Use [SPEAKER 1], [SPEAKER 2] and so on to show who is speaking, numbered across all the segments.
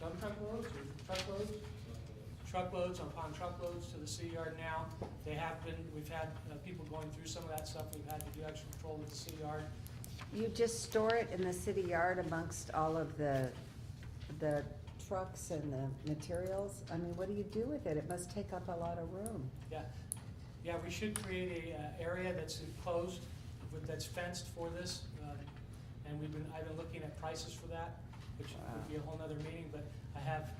[SPEAKER 1] dump truck loads or truckloads? Truckloads upon truckloads to the city yard now. They have been, we've had uh, people going through some of that stuff. We've had to do extra patrol with the city yard.
[SPEAKER 2] You just store it in the city yard amongst all of the, the trucks and the materials? I mean, what do you do with it? It must take up a lot of room.
[SPEAKER 1] Yeah, yeah, we should create a uh, area that's enclosed, with- that's fenced for this. uh, And we've been, I've been looking at prices for that, which would be a whole nother meeting, but I have,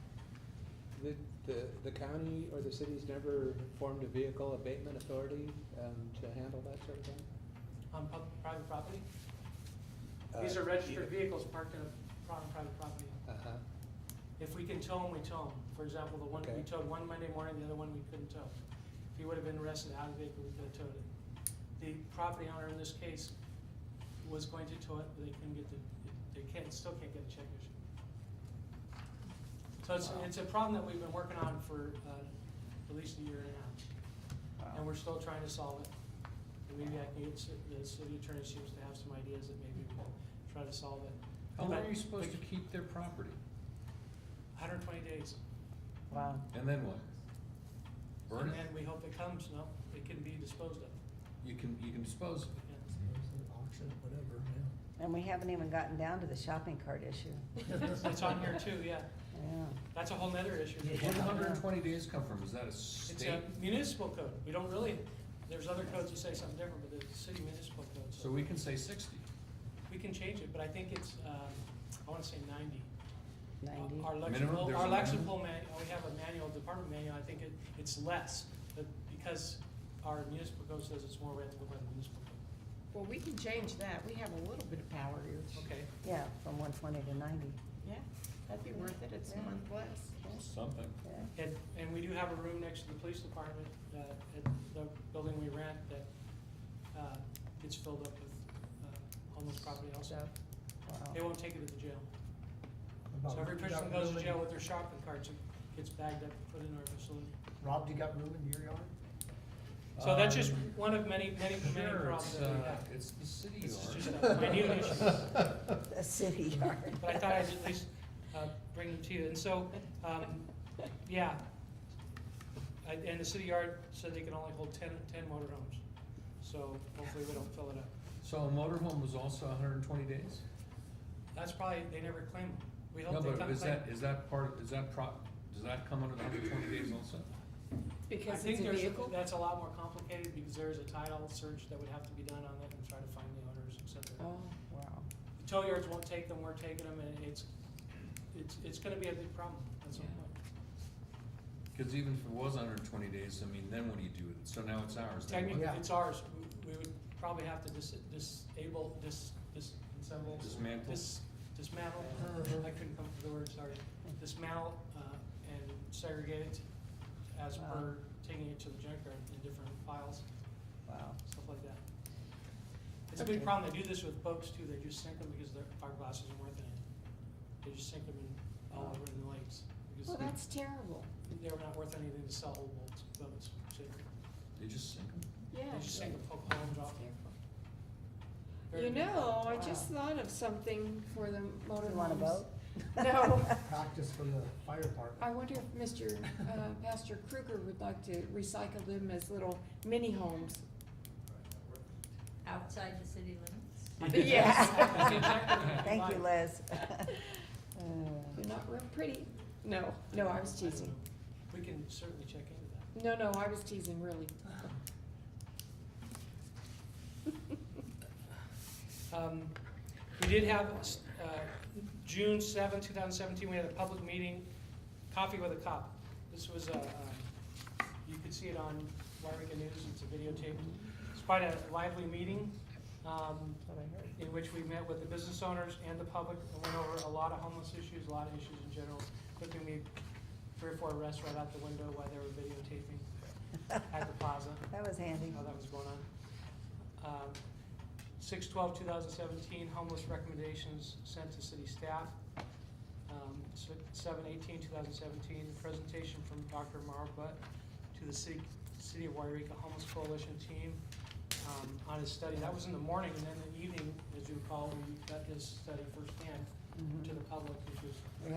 [SPEAKER 3] The, the, the county or the city's never formed a vehicle abatement authority, um, to handle that sort of thing?
[SPEAKER 1] on pub- private property.
[SPEAKER 3] Uh,
[SPEAKER 1] These are registered
[SPEAKER 3] yeah.
[SPEAKER 1] vehicles parked in a, on private property.
[SPEAKER 3] Uh-huh,
[SPEAKER 1] If we can tow them, we tow them. For example, the one, we
[SPEAKER 3] Okay.
[SPEAKER 1] towed one Monday morning, the other one we couldn't tow. If he would have been arrested out of vehicle, we could have towed it. The property owner in this case was going to tow it, but they couldn't get the, they can't, still can't get the check issued. So it's,
[SPEAKER 3] Wow.
[SPEAKER 1] it's a problem that we've been working on for, uh, at least a year and a half. And we're still trying to solve it. And maybe I can get, ci- the city attorney seems to have some ideas that maybe we can try to solve it.
[SPEAKER 4] How long are you supposed to keep their property?
[SPEAKER 1] Hundred twenty days.
[SPEAKER 2] Wow.
[SPEAKER 4] And then what?
[SPEAKER 1] And
[SPEAKER 4] Burn it?
[SPEAKER 1] then we hope it comes, no, it can be disposed of.
[SPEAKER 4] You can, you can dispose of it.
[SPEAKER 1] Yeah.
[SPEAKER 5] Auction, whatever,
[SPEAKER 2] And we haven't even gotten down to the shopping cart issue.
[SPEAKER 1] It's on here too, yeah.
[SPEAKER 2] Yeah.
[SPEAKER 1] That's a whole nother issue.
[SPEAKER 4] Where did hundred and twenty days come from? Is that a
[SPEAKER 1] It's
[SPEAKER 4] state?
[SPEAKER 1] a municipal code. We don't really, there's other codes that say something different, but there's a city municipal code.
[SPEAKER 4] So we can say sixty.
[SPEAKER 1] We can change it, but I think it's, um, I wanna say ninety.
[SPEAKER 2] Ninety.
[SPEAKER 1] Our
[SPEAKER 4] Minimum?
[SPEAKER 1] lexical,
[SPEAKER 4] There's
[SPEAKER 1] our
[SPEAKER 4] a minimum?
[SPEAKER 1] lexical man, we have a manual, department manual, I think it, it's less, but because our municipal code says it's more, we have to go by the municipal code.
[SPEAKER 6] Well, we can change that, we have a little bit of power here.
[SPEAKER 1] Okay,
[SPEAKER 2] Yeah, from one twenty to ninety.
[SPEAKER 6] Yeah, that'd be worth it, it's a month less.
[SPEAKER 4] Something.
[SPEAKER 2] Yeah.
[SPEAKER 1] And, and we do have a room next to the police department, uh, at the building we rent that, uh, gets filled up with, uh, homeless property also.
[SPEAKER 6] So,
[SPEAKER 1] They
[SPEAKER 2] Wow.
[SPEAKER 1] won't take it to the jail.
[SPEAKER 5] yeah.
[SPEAKER 1] So every person goes to jail with their shopping carts and gets bagged up and put in our facility.
[SPEAKER 5] Rob, you got room in your yard?
[SPEAKER 1] So that's just
[SPEAKER 4] Um,
[SPEAKER 1] one of many, many, many
[SPEAKER 4] Sure,
[SPEAKER 1] problems
[SPEAKER 4] it's,
[SPEAKER 1] that we
[SPEAKER 4] uh,
[SPEAKER 1] have.
[SPEAKER 4] it's the city
[SPEAKER 1] This is
[SPEAKER 4] yard.
[SPEAKER 1] just a minute issue.
[SPEAKER 2] The city yard.
[SPEAKER 1] But I thought I'd at least, uh, bring them to you. And so, um, yeah. I- And the city yard said they can only hold ten, ten motorhomes. So hopefully we don't fill it up.
[SPEAKER 4] So a motorhome was also hundred and twenty days?
[SPEAKER 1] That's probably, they never claim them. We
[SPEAKER 4] No,
[SPEAKER 1] hope they
[SPEAKER 4] but
[SPEAKER 1] come
[SPEAKER 4] is
[SPEAKER 1] claim.
[SPEAKER 4] that, is that part, is that pro, does that come under the hundred and twenty days also?
[SPEAKER 1] I
[SPEAKER 6] Because
[SPEAKER 1] think
[SPEAKER 6] it's a
[SPEAKER 1] there's,
[SPEAKER 6] vehicle?
[SPEAKER 1] that's a lot more complicated because there is a title search that would have to be done on it and try to find the owners, et cetera.
[SPEAKER 2] Oh, wow.
[SPEAKER 1] The tow yards won't take them, we're taking them, and it's, it's, it's gonna be a big problem at some
[SPEAKER 4] Yeah.
[SPEAKER 1] point.
[SPEAKER 4] Cause even if it was hundred and twenty days, I mean, then what do you do with it? So now it's ours. then what?
[SPEAKER 1] Technically,
[SPEAKER 5] Yeah.
[SPEAKER 1] it's ours, we, we would probably have to dis- disable, dis, dis, disassemble,
[SPEAKER 4] Dismantle?
[SPEAKER 1] dis, dismantle,
[SPEAKER 6] Uh-huh.
[SPEAKER 1] I couldn't come up with the word, sorry. Dismantle, uh, and segregate it as
[SPEAKER 2] Wow.
[SPEAKER 1] per taking it to the junkyard in different files.
[SPEAKER 2] Wow.
[SPEAKER 1] stuff like that. It's a big
[SPEAKER 2] Okay.
[SPEAKER 1] problem, they do this with boats too, they just sink them because their fiberglass isn't worth anything. They just sink them in, all over in the lakes, because
[SPEAKER 6] Well, that's terrible.
[SPEAKER 1] they- they're not worth anything to sell old boats, boats, so
[SPEAKER 4] They just sink 'em?
[SPEAKER 6] Yeah.
[SPEAKER 1] they just sink them, poke holes, drop them. Very
[SPEAKER 6] You
[SPEAKER 1] big
[SPEAKER 6] know, I
[SPEAKER 1] problem.
[SPEAKER 6] just thought of something for the motor
[SPEAKER 2] You want a boat?
[SPEAKER 6] No.
[SPEAKER 5] Practice for the fire
[SPEAKER 6] I
[SPEAKER 5] department.
[SPEAKER 6] wonder if Mr. uh, Pastor Kruger would like to recycle them as little mini homes.
[SPEAKER 7] Outside the city limits?
[SPEAKER 6] Yeah.
[SPEAKER 2] Thank you, Liz.
[SPEAKER 6] They're not real pretty. No, no, I was teasing.
[SPEAKER 1] We can certainly check into that.
[SPEAKER 6] No, no, I was teasing, really.
[SPEAKER 1] Um, We did have, uh, June seventh, two thousand seventeen, we had a public meeting, Coffee with a Cop. This was, uh, uh, you could see it on Wairega News, it's a videotape. It's quite a lively meeting, um, in which we met with the business owners and the public, and went over a lot of homeless issues, a lot of issues in general. Quickly made three or four arrests right out the window while they were videotaping at the plaza
[SPEAKER 2] That was handy.
[SPEAKER 1] how that was going on. Six twelve, two thousand seventeen, homeless recommendations sent to city staff. Um, Seven eighteen, two thousand seventeen, presentation from Dr. Marv Butt to the city, city of Wairika Homeless Coalition team um, on his study. That was in the morning, and then in the evening, as you recall, we got his study firsthand to the public, which was